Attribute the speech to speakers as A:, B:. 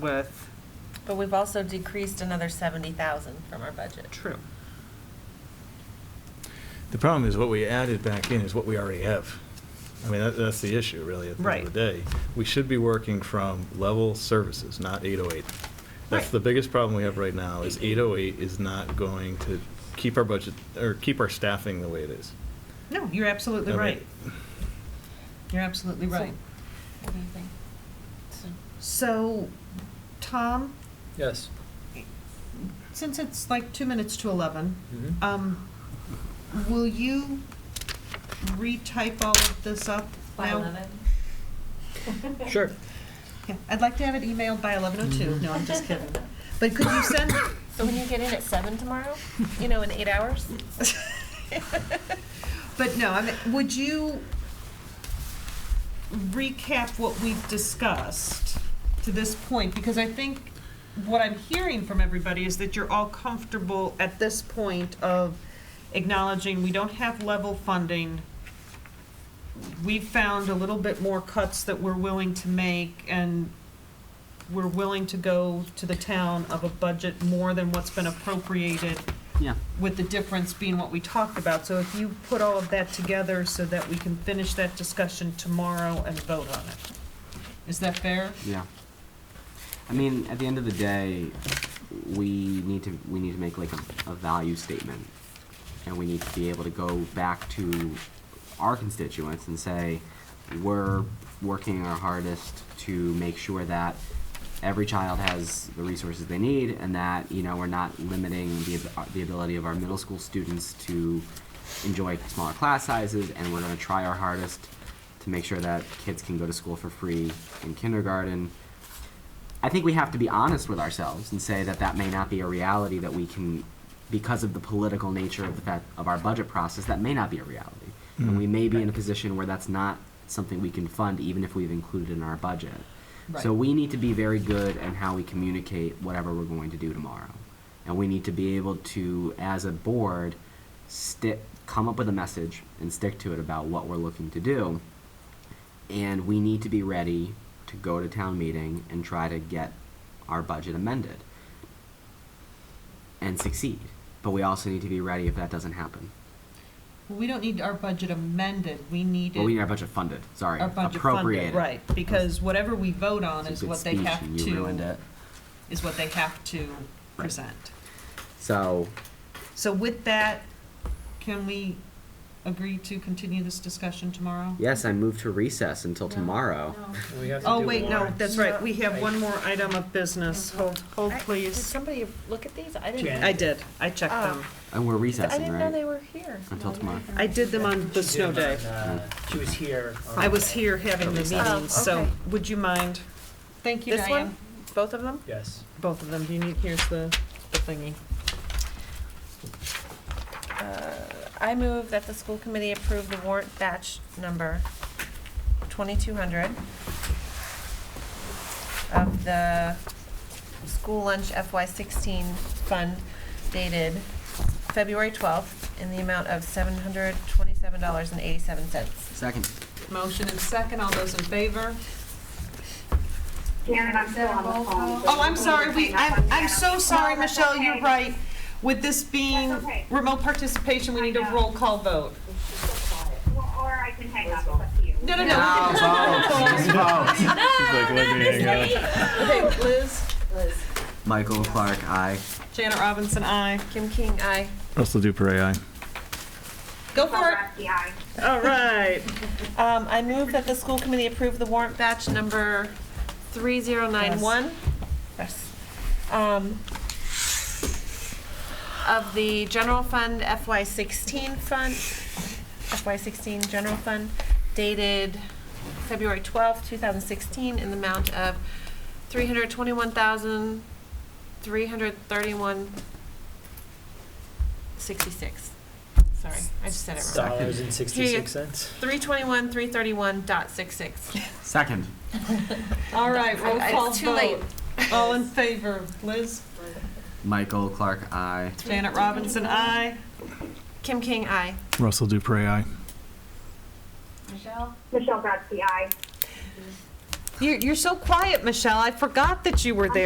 A: with,
B: But we've also decreased another seventy thousand from our budget.
A: true.
C: The problem is what we added back in is what we already have. I mean, that, that's the issue really at the end of the day. We should be working from level services, not 808. That's
A: Right.
C: the biggest problem we have right now is 808 is not going to keep our budget, or keep our staffing the way it is.
A: No, you're absolutely
C: I mean,
A: right. You're absolutely
B: So-
A: right.
B: What do you think? So-
A: So, Tom,
D: Yes.
A: since it's like two minutes to 11,
D: Mhm.
A: um, will you retype all of this up now?
D: Sure.
A: Yeah, I'd like to have it emailed by
B: Mm-hmm.
A: 11:02. No, I'm just kidding. But could you send,
B: So when you get in at seven tomorrow, you know, in eight hours?
A: but no, I mean, would you recap what we've discussed to this point? Because I think what I'm hearing from everybody is that you're all comfortable at this point of acknowledging we don't have level funding. We've found a little bit more cuts that we're willing to make and we're willing to go to the town of a budget more than what's been appropriated
E: Yeah.
A: with the difference being what we talked about. So if you put all of that together so that we can finish that discussion tomorrow and vote on it. Is that fair?
E: Yeah. I mean, at the end of the day, we need to, we need to make like a, a value statement. And we need to be able to go back to our constituents and say, we're working our hardest to make sure that every child has the resources they need and that, you know, we're not limiting the, ab- the ability of our middle school students to enjoy smaller class sizes and we're gonna try our hardest to make sure that kids can go to school for free in kindergarten. I think we have to be honest with ourselves and say that that may not be a reality that we can, because of the political nature of the fact of our budget process, that may not be a reality. And we may be in a position where that's not something we can fund, even if we've included in our budget. So
A: Right.
E: we need to be very good in how we communicate whatever we're going to do tomorrow. And we need to be able to, as a board, stick, come up with a message and stick to it about what we're looking to do and we need to be ready to go to town meeting and try to get our budget amended and succeed. But we also need to be ready if that doesn't happen.
A: Well, We don't need our budget amended, we need
E: Well, we need
A: it,
E: our budget funded, sorry,
A: our budget
E: appropriated.
A: funded, right, because whatever we vote on is
E: It's a good
A: what they
E: speech
A: have
E: and you ruined
A: to,
E: it.
A: is what they have to present.
E: So,
A: So with that, can we agree to continue this discussion tomorrow?
E: yes, I move to recess until tomorrow.
D: We have to
A: Oh,
D: do
A: wait, no,
D: warrants.
A: that's right, we have one more item of business, hold, hold
B: I- Did
A: please.
B: somebody look at these? I didn't.
D: Jan.
A: I did, I checked them.
E: And we're
B: I
E: recessing,
B: didn't know
E: right?
B: they were here.
E: Until tomorrow.
A: I did them on the
D: She
A: snow
D: did
A: day.
D: on, uh, She was here. on
A: I was
D: Monday.
A: here having the
E: Everything.
A: meeting, so
B: okay.
A: would you mind? Oh, Thank you,
B: This
A: Diane.
B: one, both of them?
D: Yes.
A: Both of them, do you need, here's the, the thingy.
B: Uh, I move that the school committee approve the warrant batch number 2200 of the school lunch FY16 fund dated February 12th in the amount of $727.87.
E: Second.
A: Motion and second, all those in favor?
F: Karen, I'm still on the phone.
A: Oh, I'm sorry, we, I'm, I'm so sorry, Michelle, you're right. With this being
F: That's okay.
A: remote participation, we need a roll call vote.
F: Or I can hang up, it's up to you.
A: No, no, no. Okay, Liz,
E: Michael Clark, aye.
A: Janet Robinson, aye.
B: Kim King, aye.
C: Russell Duper, aye.
A: Go for
F: Well,
A: it.
F: that's the eye.
A: All right.
B: Um, I move that the school committee approve the warrant batch number 3091. Yes. Um, Of the general fund FY16 fund, FY16 general fund dated February 12th, 2016, in the amount of $321,331.66. Sorry, I just said it wrong.
D: Dollars and sixty-six cents.
B: 321, 331 dot 66.
E: Second.
A: All right, roll
B: I-
A: call
B: It's too late.
A: vote. All in favor, Liz?
E: Michael Clark, aye.
A: Janet Robinson, aye.
B: Kim King, aye.
C: Russell Duper, aye.
F: Michelle Grotzky, aye.
A: You're, you're so quiet, Michelle. I forgot that you were there.